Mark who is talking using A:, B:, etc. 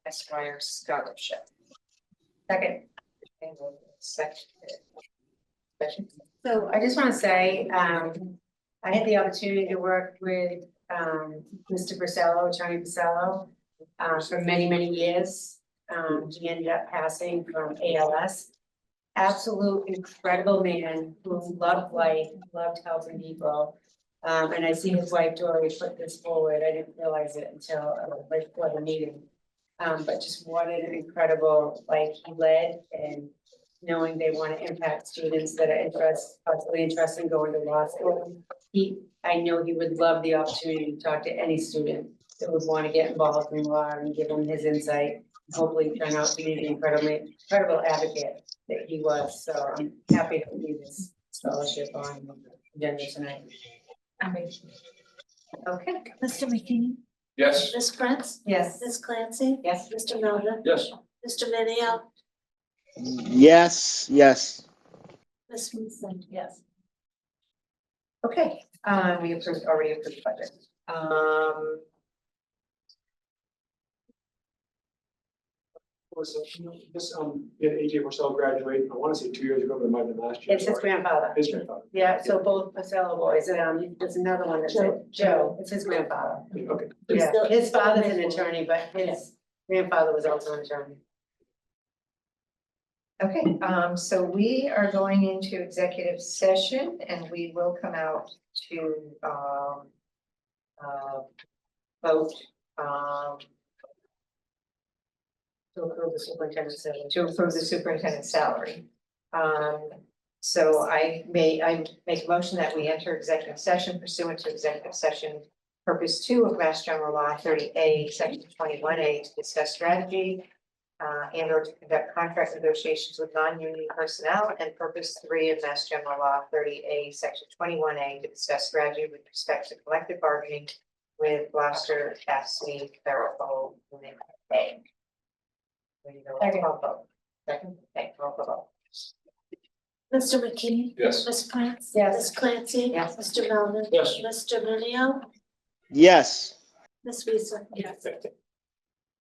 A: Esquire Scholarship. Second. Second. Question?
B: So I just wanna say, um, I had the opportunity to work with, um, Mr. Brisello, Tony Brisello, uh, for many, many years. Um, he ended up passing from ALS. Absolute incredible man who loved life, loved helping people. Um, and I see his wife Dory put this forward. I didn't realize it until, uh, right before the meeting. Um, but just what an incredible, like, he led and knowing they want to impact students that are interested, possibly interested in going to law school. He, I know he would love the opportunity to talk to any student that would want to get involved in law and give him his insight. Hopefully turn out to be the incredibly, incredible advocate that he was, so I'm happy to leave this scholarship on the agenda tonight. Okay,
C: Mr. McKinney,
D: Yes.
C: Ms. Prince,
B: yes,
C: Ms. Clancy,
B: yes,
C: Mr. Melvin,
D: Yes.
C: Mr. Minio,
E: Yes, yes.
C: Ms. Vincent, yes.
A: Okay,
B: uh,
A: um, we approved, already approved budget, um.
F: Was, this, um, did AJ Marcel graduate, I wanna say two years ago, but it might have been last year.
B: it's his grandfather.
F: His grandfather,
B: Yeah, so both Pacello boys, and um, there's another one that's
C: Joe.
B: Joe, it's his grandfather.
F: okay.
C: He's
B: Yeah,
C: still-
B: his
C: still
B: father's an
C: there for-
B: attorney, but his grandfather was also an attorney.
A: Okay, um, so we are going into executive session and we will come out to, um. Uh, vote, um.
B: To approve the superintendent's salary.
A: to approve the superintendent's salary. Um, so I may, I make a motion that we enter executive session pursuant to executive session purpose two of Mass General Law thirty A, section twenty-one A, to discuss strategy uh, and or to conduct contract negotiations with non-union personnel, and purpose three of Mass General Law thirty A, section twenty-one A, to discuss strategy with respect to collective bargaining with Gloucester S C Thoroughful Unit A. We need a roll call vote. Second, thank you, roll call vote.
C: Mr. McKinney,
D: Yes.
C: Ms. Prince,
B: Yes.
C: Ms. Clancy,
A: Yes.
C: Mr. Melvin,
D: Yes.
C: Mr. Minio,
E: Yes.
C: Ms. Vincent, yes.